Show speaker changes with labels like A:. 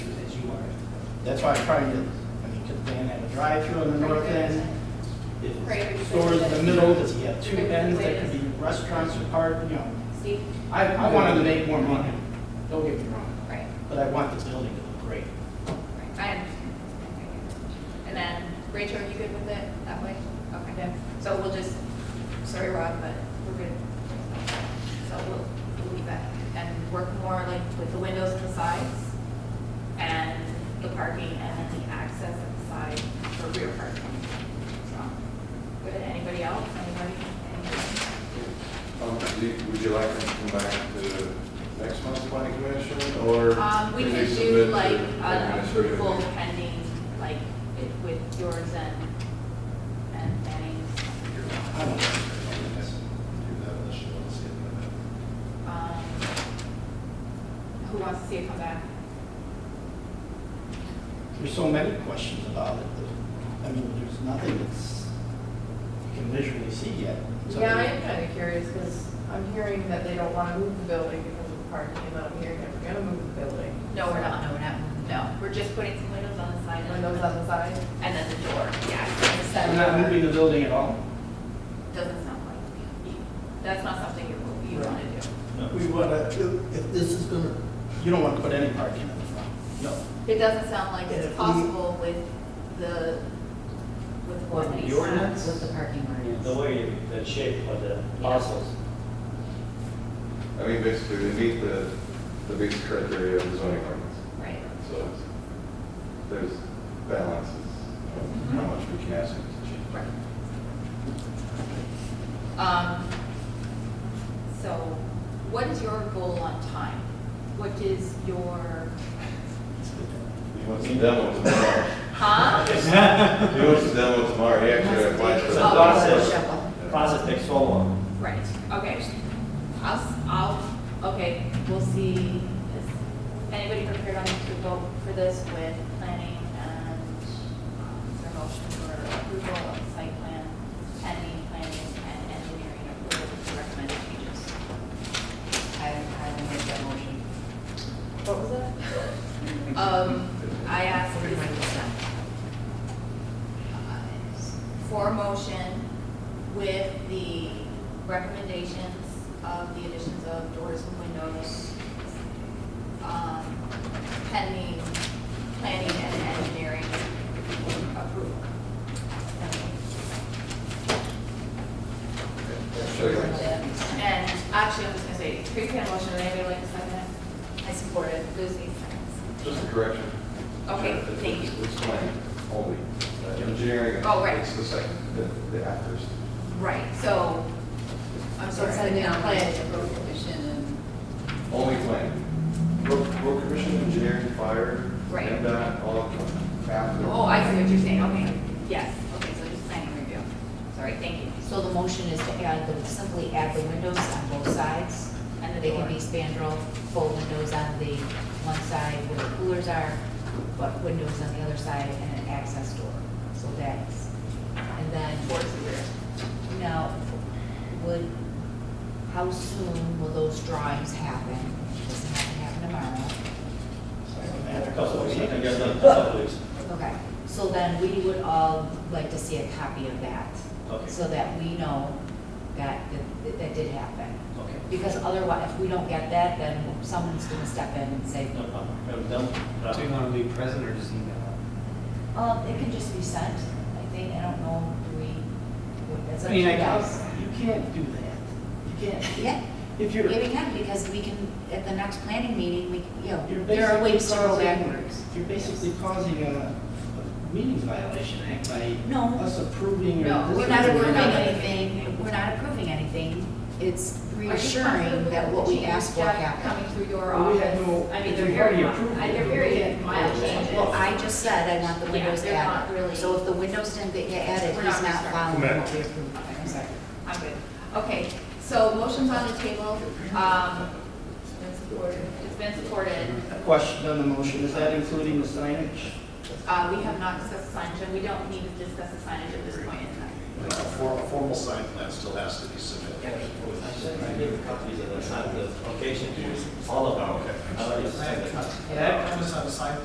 A: That's why I'm trying to, I mean, could Van have a drive-through on the north end? If it's stores in the middle, does he have two ends that could be restaurants or park, you know?
B: Steve?
A: I, I want him to make more money, don't get me wrong,
B: Right,
A: but I want this building to look great.
B: right, I understand. And then, Rachel, are you good with it that way? Okay, so we'll just, sorry, Rob, but we're good. So we'll, we'll leave that and work more like with the windows and the sides and the parking and then the access at the side for rear parking. So, Good, anybody else, anybody? Anybody?
C: Um, do you- Would you like us to come back to next month's planning commission, or?
B: Um, we
C: can
B: could
C: you
B: do
C: submit to
B: like an
C: administrative?
B: approval pending, like it- with yours and, and Manny's.
A: I don't know.
C: Do that unless you want to see it in a minute.
B: Um, Who wants to see it come back?
A: There's so many questions about it. that- I mean, there's nothing that's, you can visually see yet. So-
D: Yeah, I am kind of curious because I'm hearing that they don't want to move the building because of parking, and then I'm hearing that we're going to move the building.
B: No, we're not, no, we're not, no, we're just putting some windows on the side. and-
D: Windows on the side.
B: And then the door, yeah. it's a set
A: We're not
B: door.
A: moving the building at all.
B: Doesn't sound like, you- that's not something you, you want to do.
E: We want to, if this is going to,
A: You don't want to put any parking in the front. No.
B: It doesn't sound like
E: Yeah,
B: it's
E: we-
B: possible with the, with what we
F: The ordinance?
G: With the parking ordinance.
F: The way, the shape of the parcels.
C: I mean, basically, they meet the, the basic criteria of the zoning ordinance,
B: Right.
C: so it's- there's balances, of
B: Mm-hmm.
C: how much we can ask them to change.
B: Right. Um, so what is your goal on time? What is your,
C: He wants a demo tomorrow.
B: huh?
C: He wants a demo tomorrow, he actually applied for
F: It's a
C: the.
B: Oh.
F: process,
G: Shuffle.
F: process takes so long.
B: Right, okay. I'll, s- I'll, okay, we'll see. Is anybody prepared on to vote for this with planning and, um, is there a motion for approval of the site plan, pending planning and engineering approval with recommended changes?
G: I, I will make that motion.
D: What was that?
B: Um, I asked if I could send. Uh, For motion with the recommendations of the additions of doors and windows, um, pending planning and engineering approval.
C: Sure.
B: And actually, I'm just gonna say, pre-plan motion, would anybody like to second it? I support it. Lucy seconds.
C: Just a correction.
B: Okay,
C: It's-
B: thank you.
C: It's planning only. Uh, Engineering.
B: Oh, right.
C: It's the second, the, the afters.
B: Right, so, I'm
G: So
B: sorry.
G: it's like
B: I
G: now,
B: didn't
G: plan
B: plan it.
G: the road commission and.
C: Only planning. Road, road commission, engineering, fire.
B: Right.
C: And that, all after.
B: Oh, I see what you're saying, okay, yes, okay, so just planning review, sorry, thank you.
G: So the motion is to add, the simply add the windows on both sides.
B: And the
G: They can
B: door.
G: be spandrel, full windows on the one side where the coolers are, but windows on the other side and an access door. So that's, and then.
B: Towards the rear.
G: Now, would, how soon will those drawings happen? Doesn't have to happen tomorrow.
F: A couple of weeks, I think I've done a couple of weeks.
G: Okay, so then we would all like to see a copy of that.
F: Okay.
G: So that we know that, that, that did happen.
F: Okay.
G: Because otherwise, if we don't get that, then someone's gonna step in and say,
F: No problem. Have it done. Uh,
H: Do you want to be present or just email?
G: um, it can just be sent, I think, I don't know, do we, what- that's
A: I
G: up to you
A: mean, I
G: guys.
A: can't, you can't do that. You can't.
G: Yeah,
A: If you're.
G: yeah, we can, because we can, at the next planning meeting, we, you know,
A: You're
G: there are
A: basically
G: ways to go
A: causing-
G: backwards.
A: You're basically causing a, a meetings violation act by
G: No.
A: us approving or.
G: No,
A: this
G: we're not
A: is-
G: approving anything, we're not approving anything. It's reassuring that what we asked for happened.
B: Coming through your
A: Well, we
B: office,
A: had no-
B: I mean,
A: if
B: they're
A: you already
B: very, mi-
A: approved
B: I-
A: it,
B: they're
A: you
B: very
A: can't-
B: mild changes.
G: Well, I just said I want the windows
B: Yeah, they're not really-
G: added. So if the windows didn't get added,
B: We're not
G: he's not
B: concerned.
G: following
E: Come
G: what we approved. I'm sorry.
B: I'm good, okay, so motion's on the table, um, it's been supported, it's been supported,
A: A question on the motion, is that including the signage?
B: uh, we have not discussed the signage, and we don't need to discuss the signage at this point in time.
I: A for- a formal sign plan still has to be submitted.
F: I said I gave copies of the, sign- the location to all of them.
I: Okay.
F: I already sent it.
I: That comes on the sign